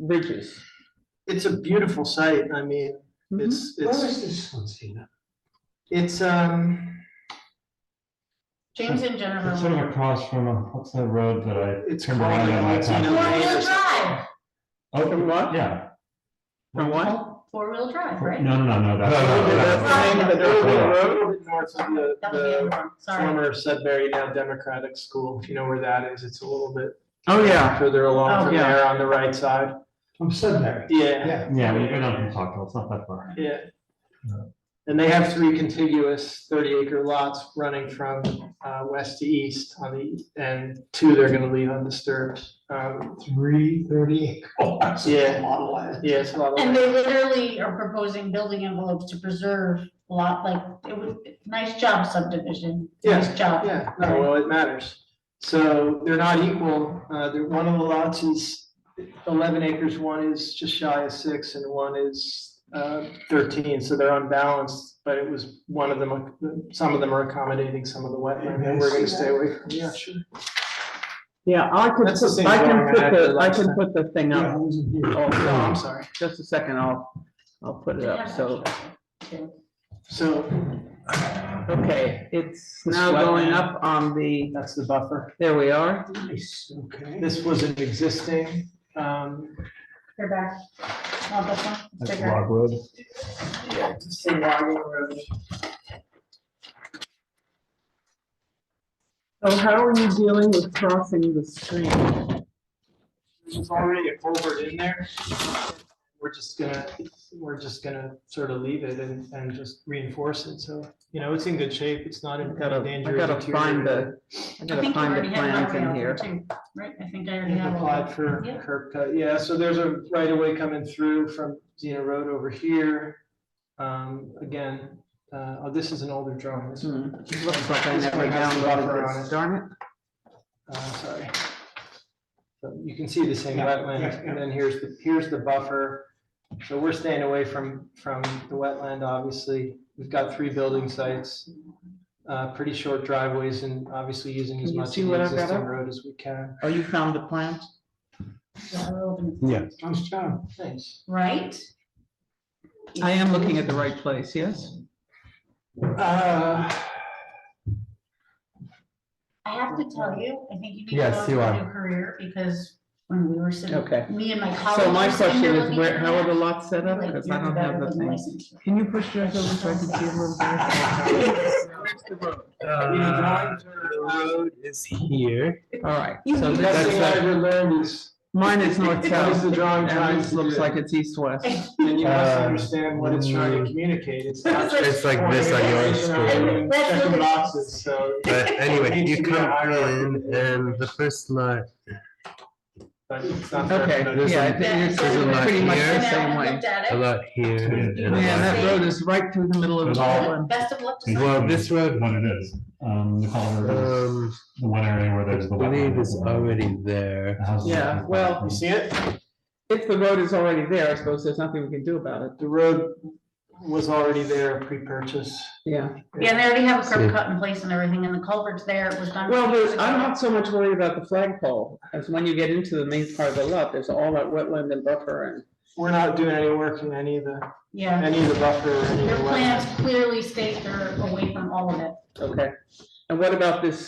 bridges. It's a beautiful site. I mean, Mm-hmm. it's, it's, this one, Stina? it's, um, James and It's sort Jennifer. of across from, uh, what's that road that I It's turned around in called, my it's, you time? know- Four-wheel drive, Oh, From what? Yeah. From what? Oh, Oh, four-wheel drive, No, right? no, no, no, that's. No, no, no, that's the name of the they're a road. little bit north of the, That was the other the one, sorry. former Sudbury now Democratic School, if you know where that is. It's a little bit Oh, yeah. further Oh, along from yeah. there on the right side. From Sudbury. Yeah, Yeah. Yeah, we've been on Hilltop, it's not that far. yeah. Yeah. And they have three contiguous thirty acre lots running from, uh, west to east on the, and two they're gonna leave undisturbed. Um, Three thirty. Oh, that's Yeah. a lot of land. yeah, it's a lot of. And they literally are proposing building envelopes to preserve a lot, like, it was, nice job subdivision, nice job. Yeah, no, well, it matters. So they're not equal. Uh, they're, one of the lots is eleven acres, one is just shy of six and one is, uh, thirteen, so they're unbalanced. But it was one of them, uh, some of them are accommodating some of the wetland and we're gonna stay away from. Yeah, sure. Yeah, I could, That's the same I can drawing I put had the, I last can time. put the thing Yeah, I up. wasn't here. Oh, No, I'm sorry. Just a second, I'll, I'll put it up, so, So okay, it's The now sweat going man. up on the, that's the buffer. there we are. Nice, okay. This was an existing, um, You're back. No, this one, it's That's bigger. Log Road. Say Waggle Road. So how are you dealing with crossing the stream? There's already a culvert in there. We're just gonna, we're just gonna sort of leave it and, and just reinforce it, so, you know, it's in good shape, it's not in I gotta- I danger. of gotta find deteriorating. I I gotta think you find already the have plans highway in out there here. too, right? I think I already We've have all applied that. for Yeah. curb cut, yeah, so there's a right of way coming through from Xena Road over here. Um, again, uh, oh, this is an older drawing, this, Hmm, Looks like I This never one has the buffer downloaded on this, it. darn it. uh, sorry. But You can see the same Yeah, yeah, wetland, yeah. and then here's the, here's the buffer. So we're staying away from, from the wetland, obviously. We've got three building sites, uh, pretty short driveways, and obviously using as Can you much see of the what I've got existing up? road as we can. Oh, you found the plant? Yeah, we're open. Yeah. Nice job. Thanks. Right? I am looking at the right place, yes? Uh, I have to tell you, I think you need to Yes, go you to are. a new career because when we were sitting, Okay. me and my colleagues. So my were sitting question there is, looking where, at how are the that, lots set up? like, Because I you're don't have better the than thing. licensed. Can you push yours over so I can see a little bit? Uh, the road is here. All right, so The best that's, thing I that- ever learned is, mine is north that is south, the drawing and trying this to looks do. like it's east west. And you must Uh, understand what it's trying to mm. communicate. It's not just. It's like this on your screen. Checking boxes, so. But anyway, Needs you to be a come hierarchy. in and the first line, but it's not fair Okay, to There's yeah, a- I think it's there's a lot pretty much the here. same And I way. looked at a it. lot here. and a Man, lot that road is right through the middle of the There's all- island. Best of luck to here. someone. Well, this road, What it is, um, the culvert is um, the one area where there's the I wetland. believe is already there. The houses are- Yeah, well, You see it? If the road is already there, I suppose there's nothing we can do about it, The road was already there pre-purchase. yeah. Yeah, and they already have a curb cut in place and everything, and the culvert's there, it was done. Well, years there's, I'm ago. not so much worried about the flagpole, as when you get into the main part of the lot, there's all that wetland and buffer and. We're not doing any work in any of the, Yeah, any of the buffer or any their of the plans wetlands. clearly state they're away from all of it. Okay, and what about this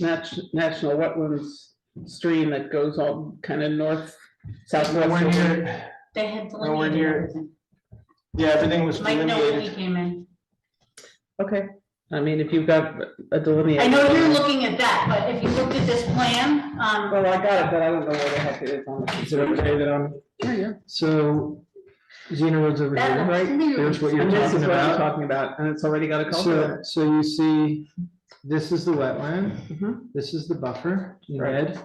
nat- national wetlands stream that goes all kind of north, Nowhere southwest? near, They had Well, we're delineated near- everything. yeah, everything was Mike, no, when he delineated. came in. Okay, I mean, if you've got a delineation. I know you're looking at that, but if you looked at this plan, um, Well, I got it, but I don't know where the heck it is on the. Is it okay that I'm, Yeah, yeah. so Xena Road's over here, that right? looks huge. There's what you're And this talking is what I'm about. talking about, and it's already got a culvert. So, so you see, this is the wetland, in it. Mhm. this is the buffer in Right. red.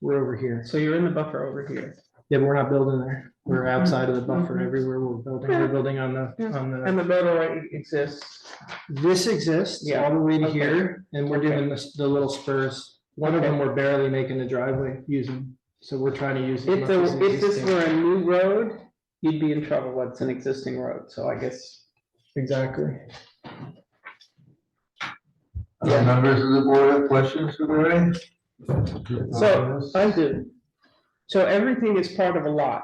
We're over here. So you're in the buffer over here. Yeah, but we're not building there. We're Mm-hmm. outside of the buffer Mhm. everywhere we're building. We're building on the, on the. And the road already exists. This exists Yeah, all the way to okay. here, and we're Okay. doing this, the little spurs. One of them, we're barely making the driveway using, so we're trying to use. as If much there, as if this existing. were a new road, you'd be in trouble, What's an existing road, so I guess. Exactly. Yeah. Members of the board have questions for Lorraine? So, I do. So everything is part of a lot.